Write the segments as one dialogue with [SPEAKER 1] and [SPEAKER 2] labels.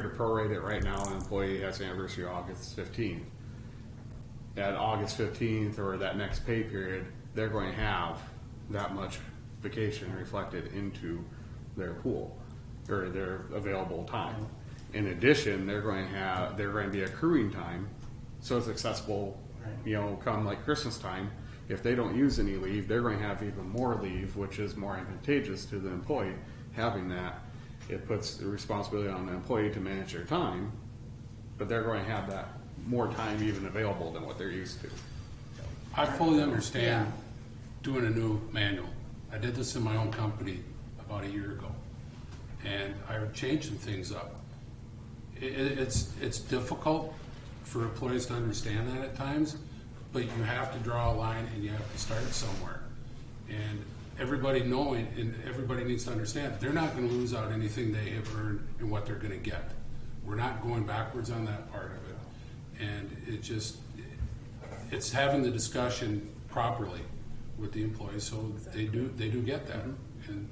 [SPEAKER 1] to prorate it right now, an employee has an anniversary August fifteenth. At August fifteenth or that next pay period, they're going to have that much vacation reflected into their pool or their available time. In addition, they're going to have, they're going to be accruing time, so it's accessible, you know, come like Christmas time. If they don't use any leave, they're going to have even more leave, which is more advantageous to the employee having that it puts the responsibility on the employee to manage their time, but they're going to have that more time even available than what they're used to.
[SPEAKER 2] I fully understand doing a new manual. I did this in my own company about a year ago, and I changed some things up. I- i it's, it's difficult for employees to understand that at times, but you have to draw a line and you have to start somewhere. And everybody knowing, and everybody needs to understand, they're not gonna lose out anything they have earned and what they're gonna get. We're not going backwards on that part of it. And it just, it's having the discussion properly with the employees, so they do, they do get that.
[SPEAKER 3] Mm-hmm.
[SPEAKER 2] And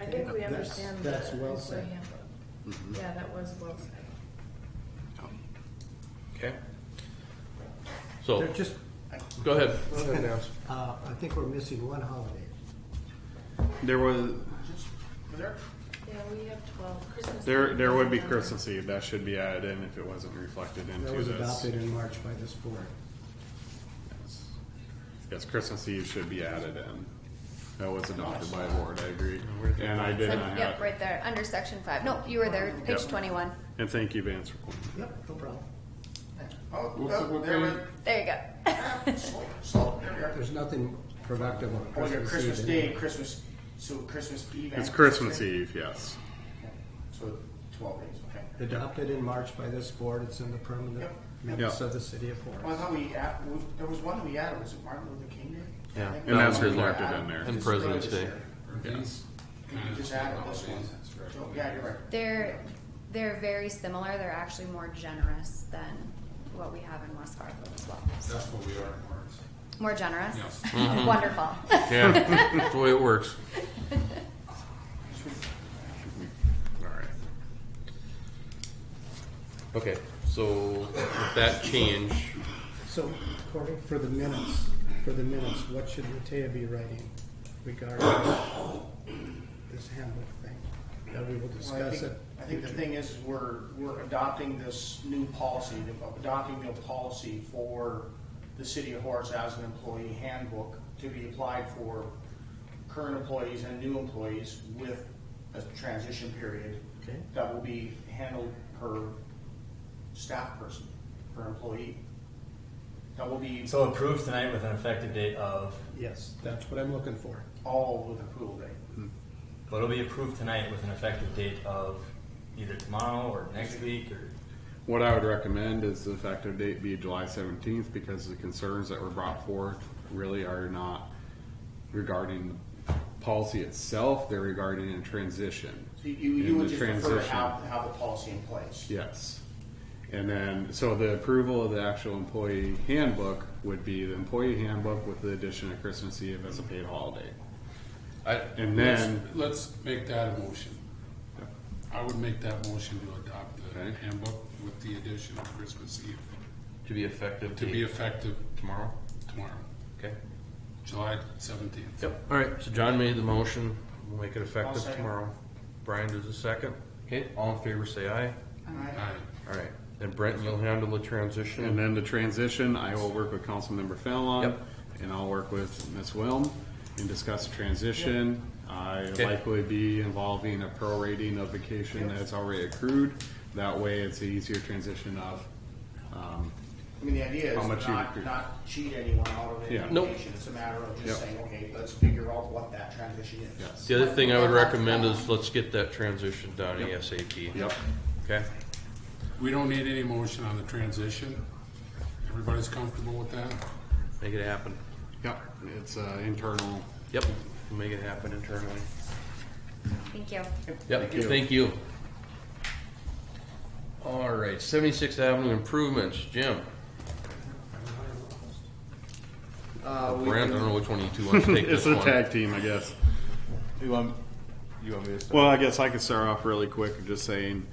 [SPEAKER 4] I think we understand. the
[SPEAKER 5] That's well
[SPEAKER 4] employee
[SPEAKER 5] said. Mm-hmm.
[SPEAKER 4] handbook. Yeah, that was well said.
[SPEAKER 3] Okay. So,
[SPEAKER 6] Oh.
[SPEAKER 5] They're just,
[SPEAKER 3] go ahead.
[SPEAKER 5] uh, I think we're missing one holiday.
[SPEAKER 1] There was,
[SPEAKER 4] Yeah, we have twelve, Christmas.
[SPEAKER 1] there,
[SPEAKER 4] Eve
[SPEAKER 1] there would be
[SPEAKER 4] doesn't matter.
[SPEAKER 1] Christmas Eve, that should be added in if it wasn't reflected
[SPEAKER 5] That
[SPEAKER 1] into
[SPEAKER 5] was
[SPEAKER 1] this.
[SPEAKER 5] adopted in March by this board.
[SPEAKER 1] Yes, Christmas Eve should be added in. That was adopted by the board, I agree. And I did
[SPEAKER 7] It's
[SPEAKER 1] not
[SPEAKER 7] like, yep,
[SPEAKER 1] have,
[SPEAKER 7] right there, under section five. Nope, you were there, page
[SPEAKER 1] Yep.
[SPEAKER 7] twenty-one.
[SPEAKER 1] and thank you, Vance, for pointing.
[SPEAKER 5] Yep, no problem.
[SPEAKER 6] Oh, oh, there we
[SPEAKER 7] There you go.
[SPEAKER 6] so- so, there we are.
[SPEAKER 5] There's nothing productive on
[SPEAKER 6] Oh, your
[SPEAKER 5] Christmas
[SPEAKER 6] Christmas
[SPEAKER 5] Eve.
[SPEAKER 6] Day,
[SPEAKER 5] anyway.
[SPEAKER 6] Christmas, so Christmas Eve. and
[SPEAKER 1] It's Christmas Eve, yes.
[SPEAKER 6] Okay. So twelve days, okay.
[SPEAKER 5] Adopted in March by this board, it's in the permanent minutes of the city of Forest.
[SPEAKER 6] Well, I thought we, add- we- there was one we added, was it Martin Luther King Day?
[SPEAKER 3] Yeah.
[SPEAKER 6] I think
[SPEAKER 1] And
[SPEAKER 3] No,
[SPEAKER 1] that's
[SPEAKER 6] we
[SPEAKER 3] there's no-
[SPEAKER 1] reflected
[SPEAKER 6] added-
[SPEAKER 1] in there.
[SPEAKER 3] And President's Day.
[SPEAKER 2] these
[SPEAKER 6] You just added this one. So, Yeah, you're right.
[SPEAKER 7] They're, they're very similar. They're actually more generous than what we have in West Fargo as well. So,
[SPEAKER 2] that's what we are, Marks.
[SPEAKER 7] More generous?
[SPEAKER 2] Yes.
[SPEAKER 7] Wonderful.
[SPEAKER 3] Yeah, that's the way it works.
[SPEAKER 1] All right.
[SPEAKER 3] Okay, so with that change,
[SPEAKER 5] So, Corey, for the minutes, for the minutes, what should Matea be writing regarding this handbook thing? That we will
[SPEAKER 6] Well, I
[SPEAKER 5] discuss
[SPEAKER 6] think,
[SPEAKER 5] it.
[SPEAKER 6] I think the thing is, is we're, we're adopting this new policy, adopting a policy for the city of Horace as an employee handbook to be applied for current employees and new employees with a transition period
[SPEAKER 5] Okay.
[SPEAKER 6] that will be handled per staff person, per employee. That will be
[SPEAKER 8] So approved tonight with an effective date of,
[SPEAKER 5] Yes, that's what I'm looking for.
[SPEAKER 6] all with approval date.
[SPEAKER 8] but it'll be approved tonight with an effective date of either tomorrow or next week or.
[SPEAKER 1] What I would recommend is the effective date be July seventeenth, because the concerns that were brought forth really are not regarding the policy itself, they're regarding a transition,
[SPEAKER 6] So you, you
[SPEAKER 1] In
[SPEAKER 6] would
[SPEAKER 1] the
[SPEAKER 6] just prefer to
[SPEAKER 1] transition.
[SPEAKER 6] have, have the policy in place.
[SPEAKER 1] yes. And then, so the approval of the actual employee handbook would be the employee handbook with the addition of Christmas Eve as a paid holiday.
[SPEAKER 3] I,
[SPEAKER 1] And then,
[SPEAKER 2] Let's make that a motion. I would make that motion to adopt the
[SPEAKER 1] Okay.
[SPEAKER 2] handbook with the addition of Christmas Eve
[SPEAKER 3] to be effective
[SPEAKER 2] to be
[SPEAKER 3] date
[SPEAKER 2] effective
[SPEAKER 3] tomorrow.
[SPEAKER 2] tomorrow,
[SPEAKER 3] Okay.
[SPEAKER 2] July seventeenth.
[SPEAKER 3] Yep. All right. So John made the motion. We'll make it
[SPEAKER 6] I'll
[SPEAKER 3] effective
[SPEAKER 6] second.
[SPEAKER 3] tomorrow. Brian does a second. Okay. All in favor, say aye.
[SPEAKER 2] Aye.
[SPEAKER 3] All right. And Brent, you'll handle the transition.
[SPEAKER 1] and then the transition, I will work with Councilmember Fallon,
[SPEAKER 3] Yep.
[SPEAKER 1] and I'll work with Ms. Wilm and discuss the transition. I likely be involving a prorating of vacation that's already accrued. That way, it's an easier transition of, um,
[SPEAKER 6] I mean, the idea
[SPEAKER 1] How
[SPEAKER 6] is
[SPEAKER 1] much you
[SPEAKER 6] not,
[SPEAKER 1] recruit.
[SPEAKER 6] not cheat anyone out of any
[SPEAKER 1] Yeah.
[SPEAKER 3] Nope.
[SPEAKER 6] vacation. It's a matter of just
[SPEAKER 1] Yep.
[SPEAKER 6] saying, okay, let's figure out what that transition is.
[SPEAKER 1] yes,
[SPEAKER 3] The other thing I would
[SPEAKER 7] What-
[SPEAKER 3] recommend is let's get that transition done
[SPEAKER 1] Yep.
[SPEAKER 3] ASAP.
[SPEAKER 1] yep,
[SPEAKER 3] Okay.
[SPEAKER 2] We don't need any motion on the transition. Everybody's comfortable with that?
[SPEAKER 3] Make it happen.
[SPEAKER 1] yep, it's, uh, internal.
[SPEAKER 3] Yep. We'll make it happen internally.
[SPEAKER 7] Thank you.
[SPEAKER 3] Yep, thank you. All right, Seventy-Sixth Avenue improvements, Jim,
[SPEAKER 9] Uh, we
[SPEAKER 3] Brent, I don't
[SPEAKER 9] can-
[SPEAKER 3] know which one you two want to take
[SPEAKER 1] It's
[SPEAKER 3] this
[SPEAKER 1] a
[SPEAKER 3] one.
[SPEAKER 1] tag team, I guess.
[SPEAKER 9] you want, you want me to start?
[SPEAKER 1] Well, I guess I could start off really quick, just saying,